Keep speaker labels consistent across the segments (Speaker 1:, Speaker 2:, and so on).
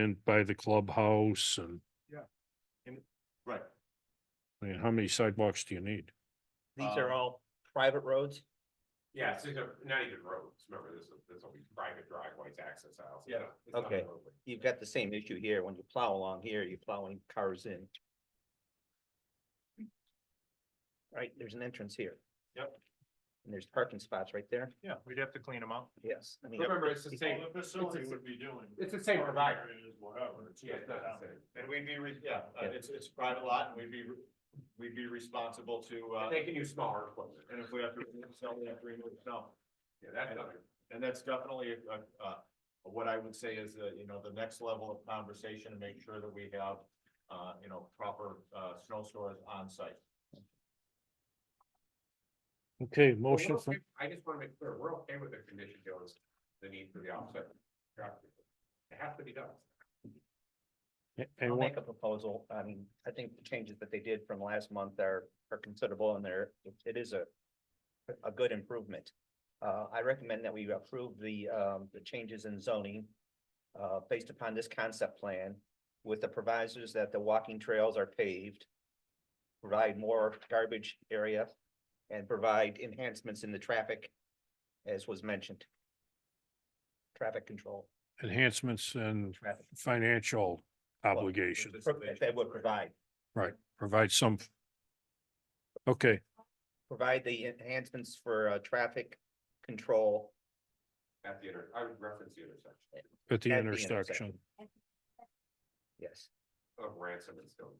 Speaker 1: and by the clubhouse and,
Speaker 2: Right.
Speaker 1: I mean, how many sidewalks do you need?
Speaker 3: These are
Speaker 2: Um,
Speaker 3: all private roads?
Speaker 4: Yeah, it's just a- not even roads, remember, this, this will be private driveways, access aisles.
Speaker 2: Yeah.
Speaker 4: It's not a
Speaker 3: Okay.
Speaker 4: roadway.
Speaker 3: You've got the same issue here. When you plow along here, you're plowing cars in. Right, there's an entrance here.
Speaker 2: Yep.
Speaker 3: And there's parking spots right there.
Speaker 2: Yeah, we'd have to clean them up.
Speaker 3: Yes. I mean,
Speaker 4: Remember, it's the same,
Speaker 2: Well, The
Speaker 4: it's a-
Speaker 2: would be doing.
Speaker 4: it's the same provider.
Speaker 2: Is whatever. it's
Speaker 4: Yeah,
Speaker 2: just
Speaker 4: it's not the
Speaker 2: that.
Speaker 4: same.
Speaker 2: And we'd be, re- yeah, uh, it's, it's a private lot and we'd be, re- we'd be responsible to, uh,
Speaker 4: But They can use smaller equipment.
Speaker 2: and if we have to remove snow, we have to remove snow.
Speaker 4: Yeah, that's not,
Speaker 2: And that's definitely, uh, uh, what I would say is, uh, you know, the next level of conversation and make sure that we have, uh, you know, proper, uh, snow stores on site.
Speaker 1: Okay,
Speaker 4: Well,
Speaker 1: motion
Speaker 4: we're
Speaker 1: for,
Speaker 4: okay- I just wanna make clear, we're okay with the condition, Joe, is the need for the offset. traffic. It has to be done.
Speaker 3: I'll
Speaker 1: and
Speaker 3: make
Speaker 1: what,
Speaker 3: a proposal. I mean, I think the changes that they did from last month are, are considerable and they're, it is a, a good improvement. Uh, I recommend that we approve the, um, the changes in zoning, uh, based upon this concept plan with the provisos that the walking trails are paved, provide more garbage area and provide enhancements in the traffic, as was mentioned. Traffic control,
Speaker 1: enhancements and
Speaker 3: traffic,
Speaker 1: financial obligation,
Speaker 3: that would provide.
Speaker 1: provide some. Okay,
Speaker 3: provide the enhancements for uh traffic control.
Speaker 4: At the inter, I would reference the intersection
Speaker 1: at the
Speaker 3: At the
Speaker 1: intersection,
Speaker 3: intersection. Yes.
Speaker 4: of ransom and stone.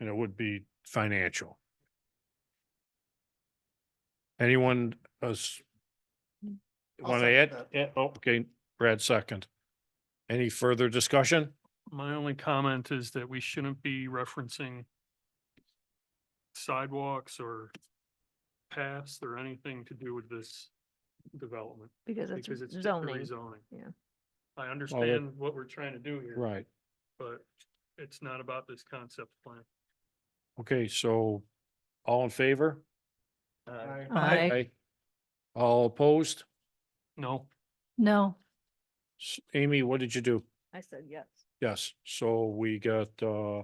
Speaker 1: and it would be financial. Anyone us?
Speaker 2: I'll
Speaker 1: Want to
Speaker 2: second
Speaker 1: add? Yeah, oh, okay, Brad second. Any further discussion?
Speaker 5: My only comment is that we shouldn't be referencing sidewalks or paths or anything to do with this development,
Speaker 6: Because it's
Speaker 5: because it's just a
Speaker 6: zoning.
Speaker 5: rezoning.
Speaker 6: yeah.
Speaker 5: I understand what we're trying to do here,
Speaker 1: Right.
Speaker 5: but it's not about this concept plan.
Speaker 1: Okay, so all in favor?
Speaker 3: Uh,
Speaker 6: Aye.
Speaker 1: All opposed?
Speaker 5: No,
Speaker 6: No,
Speaker 1: S- Amy, what did you do?
Speaker 6: I said yes.
Speaker 1: Yes, so we got uh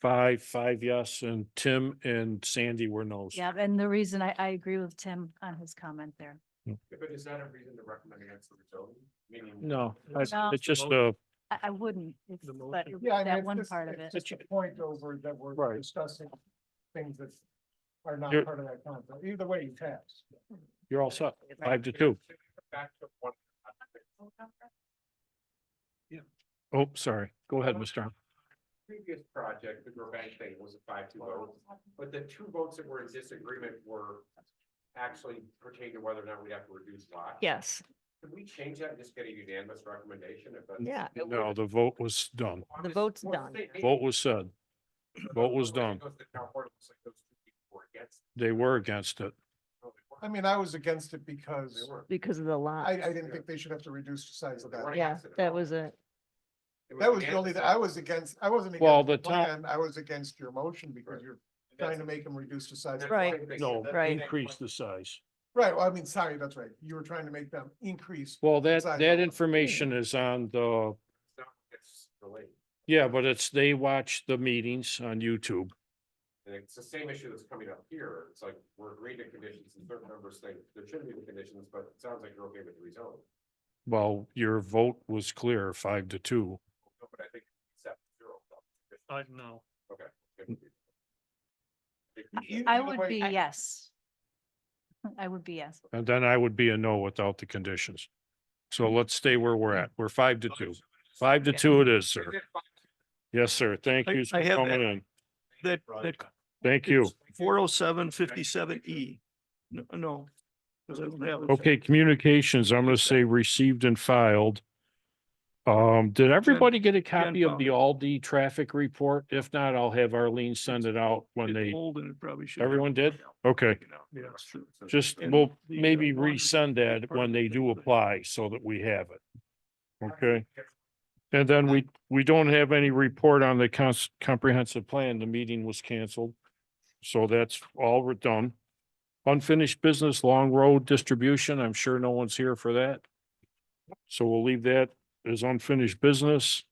Speaker 1: five, five yes, and Tim and Sandy were no's.
Speaker 6: Yeah, and the reason I, I agree with Tim on his comment there.
Speaker 4: But is that a reason to recommend against the zoning? Meaning-
Speaker 1: No, that's-
Speaker 6: No.
Speaker 1: it's just uh
Speaker 6: I, I wouldn't, if-
Speaker 5: The
Speaker 6: but
Speaker 5: motion.
Speaker 7: Yeah, I mean,
Speaker 6: that
Speaker 7: it's
Speaker 6: one
Speaker 7: just-
Speaker 6: part of
Speaker 7: it's
Speaker 6: it.
Speaker 7: Just a point over that we're
Speaker 1: Right.
Speaker 7: discussing things that are not
Speaker 1: You're-
Speaker 7: part of that contract. Either way, you pass.
Speaker 1: you're all set, five to two.
Speaker 4: Back to one.
Speaker 1: Oh, sorry. Go ahead, Mr. Arm.
Speaker 4: Previous project, the Grovebank thing was a five two vote, but the two votes that were in disagreement were actually pertain to whether or not we have to reduce lot.
Speaker 6: Yes,
Speaker 4: Could we change that and just get a unanimous recommendation if that's?
Speaker 6: yeah, it
Speaker 1: No,
Speaker 6: would.
Speaker 1: the vote was done.
Speaker 6: The vote's
Speaker 4: Well,
Speaker 6: done.
Speaker 4: say-
Speaker 1: Vote was said. vote was
Speaker 4: When it
Speaker 1: done.
Speaker 4: goes to town board, it looks like those two people were against.
Speaker 1: They were against it.
Speaker 4: No, they weren't.
Speaker 7: I mean, I was against it
Speaker 4: They
Speaker 7: because
Speaker 4: weren't.
Speaker 6: Because of the lot.
Speaker 7: I, I didn't think they should have to reduce the size of
Speaker 4: They weren't
Speaker 7: that.
Speaker 6: Yeah,
Speaker 4: against it at
Speaker 6: that
Speaker 4: all.
Speaker 6: was it.
Speaker 4: It
Speaker 7: That was the
Speaker 4: against
Speaker 7: only,
Speaker 4: it.
Speaker 7: I was against, I wasn't
Speaker 1: Well,
Speaker 7: against the
Speaker 1: the town-
Speaker 7: plan, I was against your motion because
Speaker 4: Right.
Speaker 7: you're trying to make them reduce the size. of the
Speaker 6: Right.
Speaker 7: lot.
Speaker 1: No,
Speaker 6: Right.
Speaker 1: increase the size.
Speaker 7: Right, well, I mean, sorry, that's right. You were trying to make them increase.
Speaker 1: Well, that,
Speaker 7: Size.
Speaker 1: that information is on the,
Speaker 4: It's not- it's related.
Speaker 1: yeah, but it's, they watch the meetings on YouTube.
Speaker 4: And it's the same issue that's coming up here. It's like, we're agreeing to conditions and certain members think there shouldn't be the conditions, but it sounds like you're okay with the rezone.
Speaker 1: Well, your vote was clear, five to two.
Speaker 4: No, But I think it's at zero.
Speaker 5: I, no.
Speaker 4: Okay. Good.
Speaker 7: You-
Speaker 6: I
Speaker 7: either
Speaker 6: would
Speaker 7: way-
Speaker 6: be yes. I would be yes.
Speaker 1: And then I would be a no without the conditions.
Speaker 8: Hmm.
Speaker 1: So let's stay where we're at. We're five to two. Five to two it is, sir. Yes, sir. Thank
Speaker 8: I-
Speaker 1: you for
Speaker 8: I have
Speaker 1: coming
Speaker 8: that.
Speaker 1: in.
Speaker 8: That,
Speaker 2: Right.
Speaker 8: that.
Speaker 1: Thank you.
Speaker 8: Four oh seven fifty-seven E. No, No. 'cause I don't have it.
Speaker 1: Okay, communications, I'm gonna say received and filed. Um, did everybody get a copy of the Aldi traffic report? If not, I'll have Arlene send it out when
Speaker 8: It's
Speaker 1: they,
Speaker 8: old and it probably should.
Speaker 1: Everyone did? okay.
Speaker 8: Yeah, sure.
Speaker 1: Just,
Speaker 8: And
Speaker 1: we'll
Speaker 8: the, uh,
Speaker 1: maybe
Speaker 8: water-
Speaker 1: resend that when they do apply so that we have it. Okay? And then we, we don't have any report on the cons- comprehensive plan. The meeting was canceled. So that's all we're done. Unfinished business, long road distribution. I'm sure no one's here for that. So we'll leave that is unfinished business.